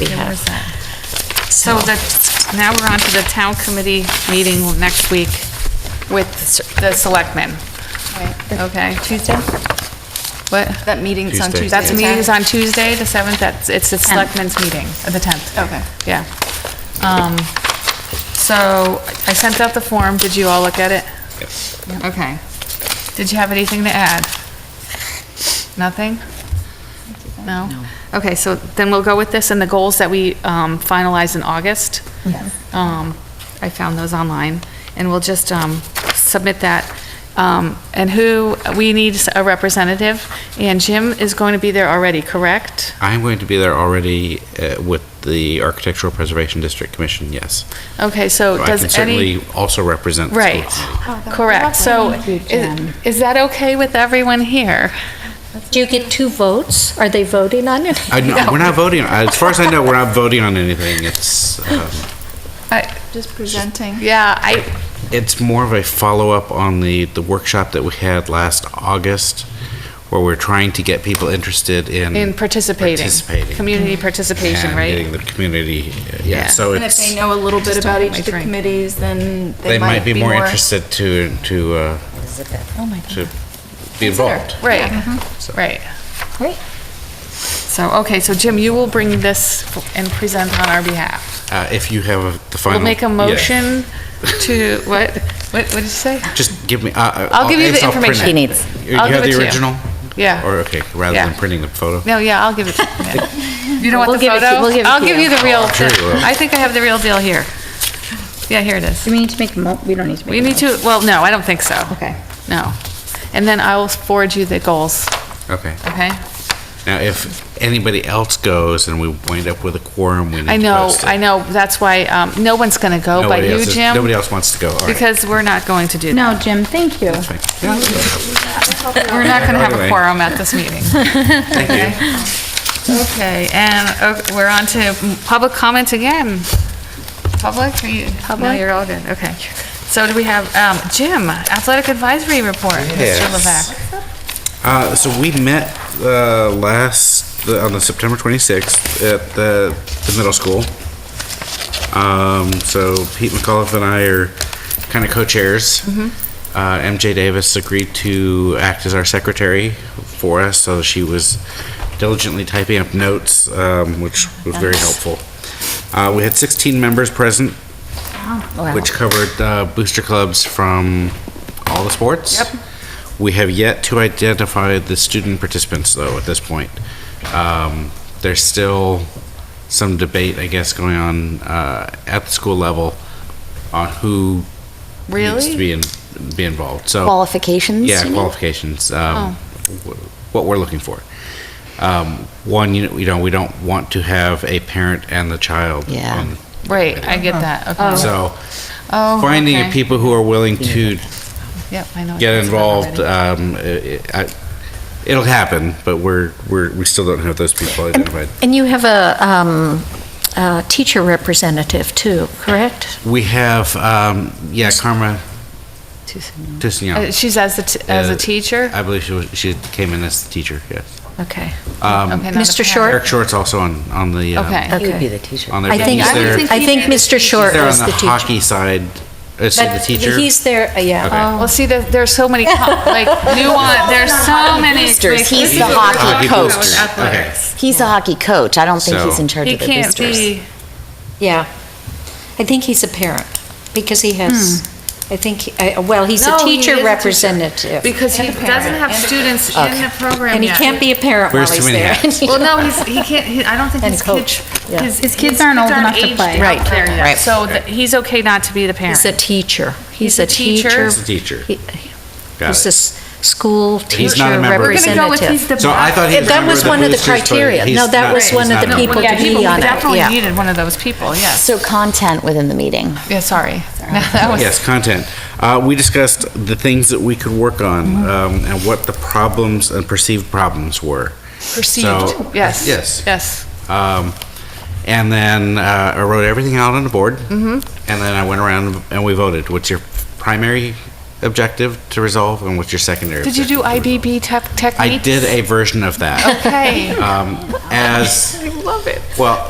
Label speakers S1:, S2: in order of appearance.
S1: behalf.
S2: So that, now we're on to the town committee meeting next week with the selectmen, okay?
S3: Tuesday?
S2: What?
S3: That meeting's on
S4: Tuesday.
S3: Tuesday.
S2: That's
S3: the
S2: meetings
S3: 10th?
S2: on Tuesday, the 7th, that's, it's the
S1: Tenth.
S2: selectmen's meeting, uh, the 10th.
S3: Okay.
S2: Yeah. Um, So I sent out the form, did you all look at it?
S4: Yes.
S2: Okay. Did you have anything to add? Nothing? No? Okay, so then we'll go with this and the goals that we um, finalize in August. Um, I found those online, and we'll just um, submit that. Um, And who, we need a representative, and Jim is going to be there already, correct?
S4: I'm going to be there already uh, with the Architectural Preservation District Commission, yes.
S2: Okay, so
S4: So I
S2: does
S4: can
S2: any?
S4: certainly also represent. the school
S2: Right,
S4: committee.
S2: correct. So
S1: Thank you,
S2: is
S1: Jen.
S2: is that okay with everyone here?
S1: Do you get two votes? Are they voting on it?
S4: I, no, We're not voting, as far as I know, we're not voting on anything. It's, um,
S2: I-
S3: Just presenting.
S2: Yeah, I,
S4: it's more of a follow-up on the, the workshop that we had last August, where we're trying to get people interested in.
S2: In participating.
S4: Mm. Participating. Mm.
S2: Community participation,
S4: And
S2: right?
S4: Getting the community, uh, yeah,
S2: Yeah.
S4: so
S3: And if
S4: it's,
S3: they know a little bit
S2: Just
S3: about
S2: don't
S3: each
S2: make
S3: of the
S2: drink.
S3: committees, then
S4: they might be more interested to, to, uh,
S1: Oh, my
S4: to be involved.
S2: right,
S1: Uh-huh.
S4: So-
S2: right.
S1: Great.
S2: So, okay, so Jim, you will bring this and present on our behalf.
S4: Uh, if you have the final.
S2: We'll make a
S4: yeah.
S2: motion to, what, what what did you say?
S4: Just give me. Uh, uh,
S2: I'll give you the
S4: I'll print
S2: information.
S4: it.
S2: He
S1: needs.
S4: You, you
S2: I'll give
S4: have
S2: it to
S4: the
S2: you.
S4: original.
S2: Yeah.
S4: Or okay, rather
S2: Yeah.
S4: than printing the photo.
S2: No, yeah, I'll give it, yeah. you don't want
S1: We'll
S2: the
S1: give it to-
S2: photo?
S1: we'll give it to
S2: I'll give
S1: you.
S2: you the real,
S4: sure you will.
S2: I think I have the real deal here. Yeah, here it is.
S5: Do we need to make, a mo- we don't need to make.
S2: We
S5: a
S2: need
S5: mo-
S2: to, well, no, I don't think so.
S5: Okay.
S2: No. And then I will forward you the goals,
S4: Okay.
S2: okay?
S4: Now, if anybody else goes and we wind up with a quorum, we need
S2: I
S4: to
S2: know,
S4: post it.
S2: I know, that's why, um, no one's gonna go but
S4: Nobody
S2: you,
S4: else is-
S2: Jim.
S4: Nobody else wants to go. All right.
S2: Because we're not going to do that.
S5: No, Jim, thank you.
S4: Fine. Yeah,
S2: We're not going to have a
S4: Anyway.
S2: quorum at this meeting.
S4: thank you.
S2: Okay, and uh, we're on to public comment again. Public, are you, no,
S1: Public?
S2: you're all good, okay. So do we have, um, Jim, athletic advisory report, Mr.
S4: Yes.
S2: Levesque?
S4: Uh, so we met uh, last the, on the September 26th at the, the middle school. Um, so Pete McAuliffe and I are kind of co-chairs. Uh, MJ Davis agreed to act as our secretary for us, so she was diligently typing up notes, um, which was very helpful. Uh, we had 16 members present, which covered uh, booster clubs from all the sports. Yep. We have yet to identify the student participants, though, at this point. Um, There's still some debate, I guess, going on uh, at the school level on who needs to
S2: Really?
S4: be in, be involved. So
S1: Qualifications?
S4: oh. yeah,
S1: you mean? Oh.
S4: qualifications. Um, wh- what we're looking for. Um, one, you know, you know, we don't want to have a parent and the child.
S1: Yeah.
S4: on-
S2: Right, I get that, okay.
S4: So
S2: Uh-huh. Oh, okay.
S4: finding people who are willing to
S2: Yep, I know what
S4: get
S2: that's about
S4: involved.
S2: already.
S4: Um, it, I, it'll happen, but we're we're we still don't have those people identified.
S1: And you have a, um, a teacher representative too, correct?
S4: We have um, yeah, Karma Tissignon.
S2: Uh, She's as the, t- as a
S4: Uh,
S2: teacher?
S4: I believe she was, she came in as the teacher. Yes.
S1: Okay.
S4: Um,
S2: Okay, not a
S1: Mr.
S2: parent.
S1: Short?
S4: Eric Short's also on on the um,
S2: Okay.
S1: He would be the
S5: teacher.
S4: on their.
S1: I think,
S4: he's
S2: I would
S4: their-
S2: think
S1: I think Mr. Short
S4: They're
S1: was
S4: on
S1: the
S4: the
S1: teacher.
S4: hockey side. Uh, so the
S1: But
S4: teacher.
S1: He's there, uh, yeah.
S4: Okay.
S2: Oh. Well, see, there- there's so many, co- like, nuance, there's so many.
S6: Boosters.
S2: like,
S6: He's the
S2: boosters.
S6: hockey
S4: Hockey
S6: coach.
S4: boosters. Okay.
S6: He's a hockey coach. I don't think he's
S4: So-
S6: in charge
S2: He
S6: of the
S2: can't
S6: boosters.
S2: be,
S1: Yeah. I think he's a parent because he has, I think, he- I- well, he's a
S2: Hmm. No, he is a
S1: teacher
S2: teacher.
S1: representative.
S2: because he doesn't have students in the program
S1: And he
S2: yet.
S1: can't be a parent while
S4: Wears too
S1: he's
S4: many
S1: there.
S4: hats.
S2: Well, no, he's, he can't, he- I don't think
S1: And
S2: his
S1: coach,
S2: kids,
S1: yeah.
S2: his.
S5: His kids aren't old enough to
S2: aged
S5: play.
S2: out
S1: Right,
S2: there yet.
S6: right.
S2: So that, he's okay not to be the parent.
S1: He's a teacher.
S2: He's
S1: He's
S2: a
S1: a teacher.
S2: teacher. He's
S4: a teacher.
S1: He-
S4: Got
S1: He's
S4: it.
S1: a s- school
S4: He's not a
S1: teacher
S4: member. We're gonna
S2: go with
S1: representative.
S4: So I thought he was
S1: That
S4: member
S1: was
S4: of the
S1: one of the
S4: boosters, but
S1: criteria.
S4: he's
S1: No, that
S4: not-
S1: was
S4: he's
S1: one of
S4: not
S1: the
S4: a
S1: people
S2: Yeah,
S1: to
S2: people
S1: be on it.
S2: definitely
S1: Yeah.
S2: needed one of those people, yes.
S6: So content within the meeting.
S2: Yeah, sorry. That was-
S4: Yes, content. Uh, we discussed the things that we could work on
S2: Mm-hmm.
S4: um, and what the problems and perceived problems were. So-
S2: Perceived, yes.
S4: Yes.
S2: Yes.
S4: Um, and then uh, I wrote everything out on the board. Mm-hmm. And then I went around and we voted. What's your primary objective to resolve and what's your secondary?
S2: Did you do
S4: objective to resolve?
S2: IBB tech- techniques?
S4: I did a version of that.
S2: Okay.
S4: Um, as
S2: I love it.
S4: well,